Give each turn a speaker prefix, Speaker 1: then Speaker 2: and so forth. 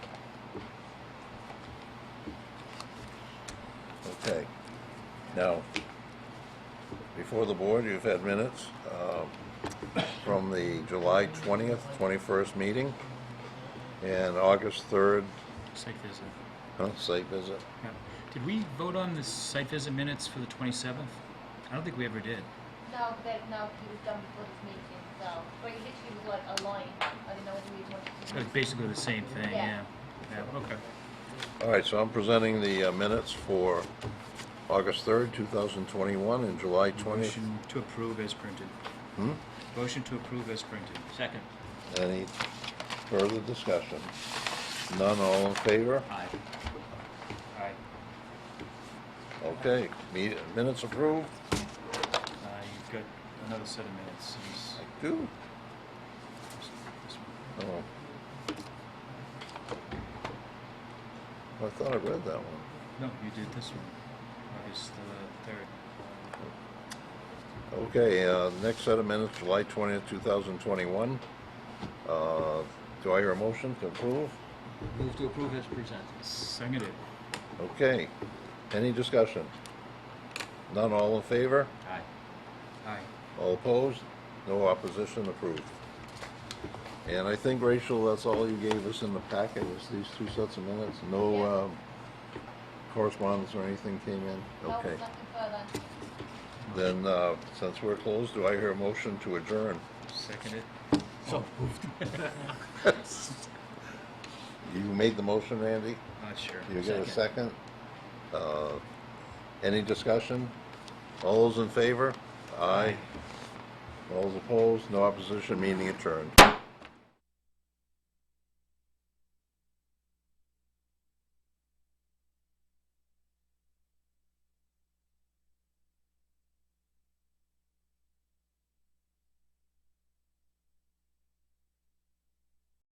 Speaker 1: Okay. Now, before the board, you've had minutes um, from the July 20th, 21st meeting, and August 3rd,
Speaker 2: Site visit.
Speaker 1: huh, site visit.
Speaker 2: Yeah. Did we vote on the site visit minutes for the 27th? I don't think we ever did.
Speaker 3: No, that, no, he was done before this meeting, so, but he literally was like a line, I didn't know whether he wanted to.
Speaker 2: It was basically the same thing, yeah.
Speaker 3: Yeah.
Speaker 2: Yeah, okay.
Speaker 1: All right, so I'm presenting the uh, minutes for August 3rd, 2021, and July 20th.
Speaker 2: Motion to approve as printed.
Speaker 1: Hmm?
Speaker 2: Motion to approve as printed. Second.
Speaker 1: Any further discussion? None, all in favor?
Speaker 2: Aye. Aye.
Speaker 1: Okay, me- minutes approved?
Speaker 2: Uh, you've got another set of minutes. It's-
Speaker 1: I do.
Speaker 2: it's-
Speaker 1: Oh. I thought I read that one.
Speaker 2: No, you did this one, August the 3rd.
Speaker 1: Okay, uh, next set of minutes, July twentieth, two thousand twenty-one. Uh, do I hear a motion to approve?
Speaker 4: Move to approve as presented.
Speaker 2: Seconded.
Speaker 1: Okay, any discussion? None, all in favor?
Speaker 4: Aye.
Speaker 2: Aye.
Speaker 1: All opposed? No opposition, approved. And I think, Rachel, that's all you gave us in the packet, was these two sets of minutes? No,
Speaker 3: Yeah.
Speaker 1: um, correspondence or anything came in?
Speaker 3: No,
Speaker 1: Okay.
Speaker 3: nothing further.
Speaker 1: Then, uh, since we're closed, do I hear a motion to adjourn?
Speaker 2: Seconded. Oh,
Speaker 4: So
Speaker 1: You made the motion, Randy?
Speaker 2: Not uh, sure.
Speaker 1: You get a second? Uh, Any discussion? All those in favor? Aye. All those opposed? No opposition, meeting adjourned.